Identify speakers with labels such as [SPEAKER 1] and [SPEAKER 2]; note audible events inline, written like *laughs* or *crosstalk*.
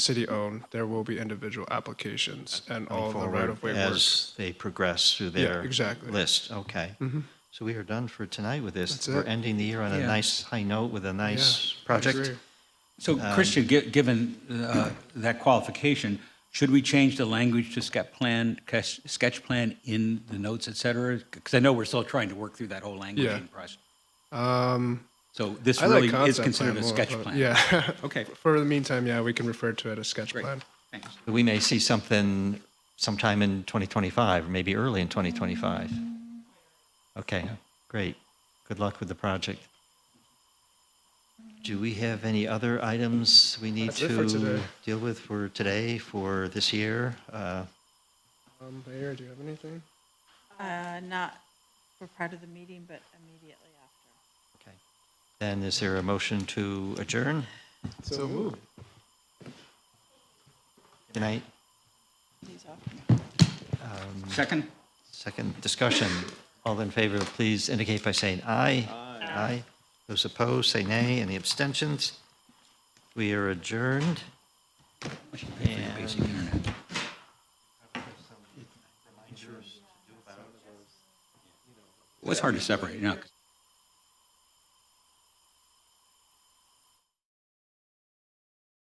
[SPEAKER 1] city-owned, there will be individual applications and all
[SPEAKER 2] going
[SPEAKER 1] of the
[SPEAKER 2] forward
[SPEAKER 1] right-of-way work.
[SPEAKER 2] As they progress through
[SPEAKER 1] Yeah,
[SPEAKER 2] their
[SPEAKER 1] exactly. Mm-hmm.
[SPEAKER 2] list, okay. So we are done for tonight with this.
[SPEAKER 1] That's
[SPEAKER 2] We're
[SPEAKER 1] it.
[SPEAKER 2] ending the year on a
[SPEAKER 3] Yeah.
[SPEAKER 2] nice high note with a
[SPEAKER 1] Yeah,
[SPEAKER 2] nice
[SPEAKER 1] I
[SPEAKER 2] project.
[SPEAKER 1] agree.
[SPEAKER 3] So
[SPEAKER 1] Um,
[SPEAKER 3] Christian, gi- given uh, that qualification, should we change the language to sketch plan, sketch sketch plan in the notes, et cetera? Because I know we're still trying to work through that whole language
[SPEAKER 1] Yeah.
[SPEAKER 3] process.
[SPEAKER 1] Um,
[SPEAKER 3] So this
[SPEAKER 1] I like
[SPEAKER 3] really is
[SPEAKER 1] concept
[SPEAKER 3] considered
[SPEAKER 1] plan
[SPEAKER 3] a
[SPEAKER 1] more,
[SPEAKER 3] sketch
[SPEAKER 1] but
[SPEAKER 3] plan.
[SPEAKER 1] Yeah. *laughs*
[SPEAKER 3] Okay.
[SPEAKER 1] For the meantime, yeah, we can refer to it as sketch
[SPEAKER 3] Great,
[SPEAKER 1] plan.
[SPEAKER 3] thanks.
[SPEAKER 2] We may see something sometime in 2025, or maybe early in 2025. Okay, great. Good luck with the project. Do we have any other items we need
[SPEAKER 1] That's it for
[SPEAKER 2] to
[SPEAKER 1] today.
[SPEAKER 2] deal with for today, for this year? Uh,
[SPEAKER 1] Um, Mayor, do you have anything?
[SPEAKER 4] Uh, Not for part of the meeting, but immediately after.
[SPEAKER 2] Okay. Then is there a motion to adjourn
[SPEAKER 1] So moved.
[SPEAKER 2] tonight?
[SPEAKER 4] Please offer.
[SPEAKER 3] Second?
[SPEAKER 2] Second discussion. All in favor, please indicate by saying aye. Aye. Those opposed, say nay. Any abstentions? We are adjourned.
[SPEAKER 3] I should pay for your basic internet. It was hard to separate, you know, 'cause-